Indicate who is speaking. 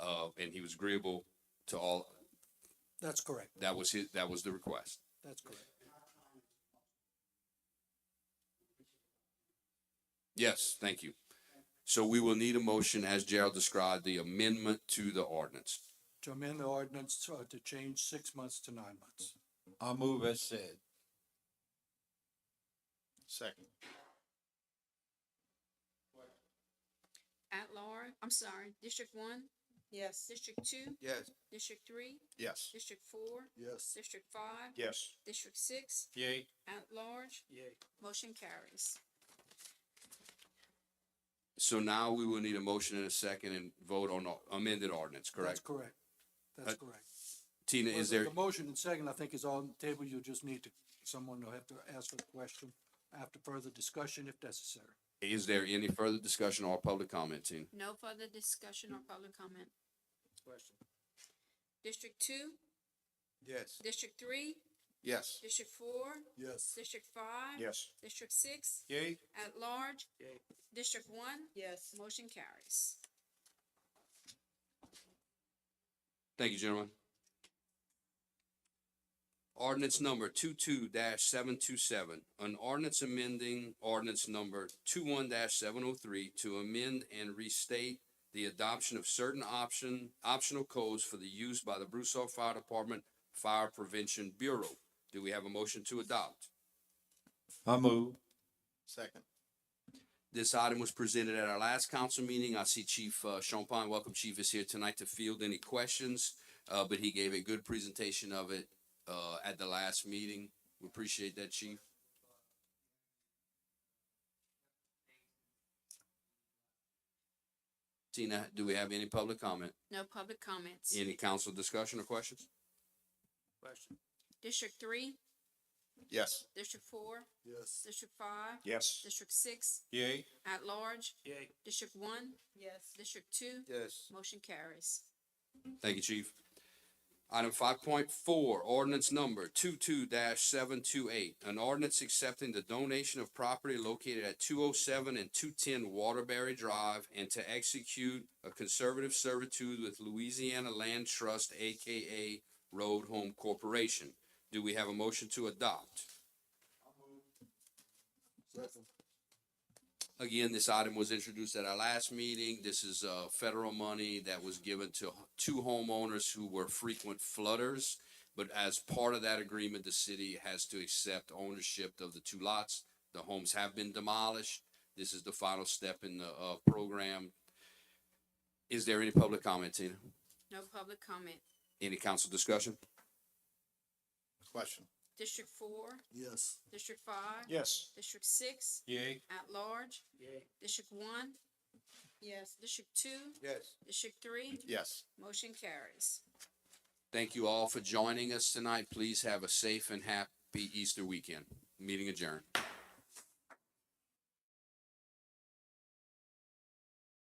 Speaker 1: uh, and he was agreeable to all,
Speaker 2: That's correct.
Speaker 1: that was his, that was the request.
Speaker 2: That's correct.
Speaker 1: Yes, thank you. So we will need a motion, as Gerald described, the amendment to the ordinance.
Speaker 2: To amend the ordinance uh, to change six months to nine months.
Speaker 3: I'll move as said.
Speaker 4: Second.
Speaker 5: At large, I'm sorry, District one,
Speaker 6: yes.
Speaker 5: District two,
Speaker 4: Yes.
Speaker 5: District three,
Speaker 4: Yes.
Speaker 5: District four,
Speaker 2: Yes.
Speaker 5: District five,
Speaker 4: Yes.
Speaker 5: District six,
Speaker 3: Yay.
Speaker 5: at large,
Speaker 2: Yay.
Speaker 5: motion carries.
Speaker 1: So now we will need a motion and a second and vote on the amended ordinance,
Speaker 2: That's
Speaker 1: correct?
Speaker 2: correct. That's
Speaker 1: Uh,
Speaker 2: correct.
Speaker 1: Tina,
Speaker 2: Well,
Speaker 1: is
Speaker 2: the-
Speaker 1: there,
Speaker 2: The motion and second, I think, is on the table. You'll just need to, someone will have to ask for the question after further discussion if necessary.
Speaker 1: is there any further discussion or public comment, Tina?
Speaker 5: No further discussion or public comment.
Speaker 3: Question.
Speaker 5: District two,
Speaker 4: Yes.
Speaker 5: District three,
Speaker 4: Yes.
Speaker 5: District four,
Speaker 2: Yes.
Speaker 5: District five.
Speaker 4: Yes.
Speaker 5: District six,
Speaker 4: Yay.
Speaker 5: at large.
Speaker 3: Yay.
Speaker 5: District one,
Speaker 6: Yes.
Speaker 5: motion carries.
Speaker 1: Thank you, gentlemen. Ordinance number two-two seven-two-seven, an ordinance amending ordinance number two-one seven-oh-three oh to amend and restate the adoption of certain option, optional codes for the use by the Broussard Fire Department Fire Prevention Bureau. Do we have a motion to adopt?
Speaker 3: I'll move.
Speaker 4: Second.
Speaker 1: This item was presented at our last council meeting. I see Chief uh, Champagne, welcome Chief, is here tonight to field any questions. Uh, but he gave a good presentation of it, uh, at the last meeting. We appreciate that, Chief. Tina, do we have any public comment?
Speaker 5: No public comments.
Speaker 1: Any council discussion or questions?
Speaker 3: Question.
Speaker 5: District three,
Speaker 4: Yes.
Speaker 5: District four,
Speaker 2: Yes.
Speaker 5: District five,
Speaker 4: Yes.
Speaker 5: District six,
Speaker 3: Yay.
Speaker 5: at large,
Speaker 3: Yay.
Speaker 5: District one,
Speaker 6: Yes.
Speaker 5: District two,
Speaker 4: Yes.
Speaker 5: motion carries.
Speaker 1: Thank you, Chief. Item five point four, ordinance number two-two seven-two-eight. An ordinance accepting the donation of property located at two oh seven and two-ten Waterbury Drive and to execute a conservative servitude with Louisiana Land Trust, AKA Road Home Corporation. Do we have a motion to adopt? Again, this item was introduced at our last meeting. This is, uh, federal money that was given to two homeowners who were frequent flooders. But as part of that agreement, the city has to accept ownership of the two lots. The homes have been demolished. This is the final step in the, uh, program. Is there any public comment, Tina?
Speaker 5: No public comment.
Speaker 1: Any council discussion?
Speaker 4: Question.
Speaker 5: District four,
Speaker 2: Yes.
Speaker 5: District five,
Speaker 4: Yes.
Speaker 5: District six,
Speaker 3: Yay.
Speaker 5: at large,
Speaker 3: Yay.
Speaker 5: District one,
Speaker 6: Yes.
Speaker 5: District two,
Speaker 4: Yes.
Speaker 5: District three,
Speaker 4: Yes.
Speaker 5: motion carries.
Speaker 1: Thank you all for joining us tonight. Please have a safe and happy Easter weekend. Meeting adjourned.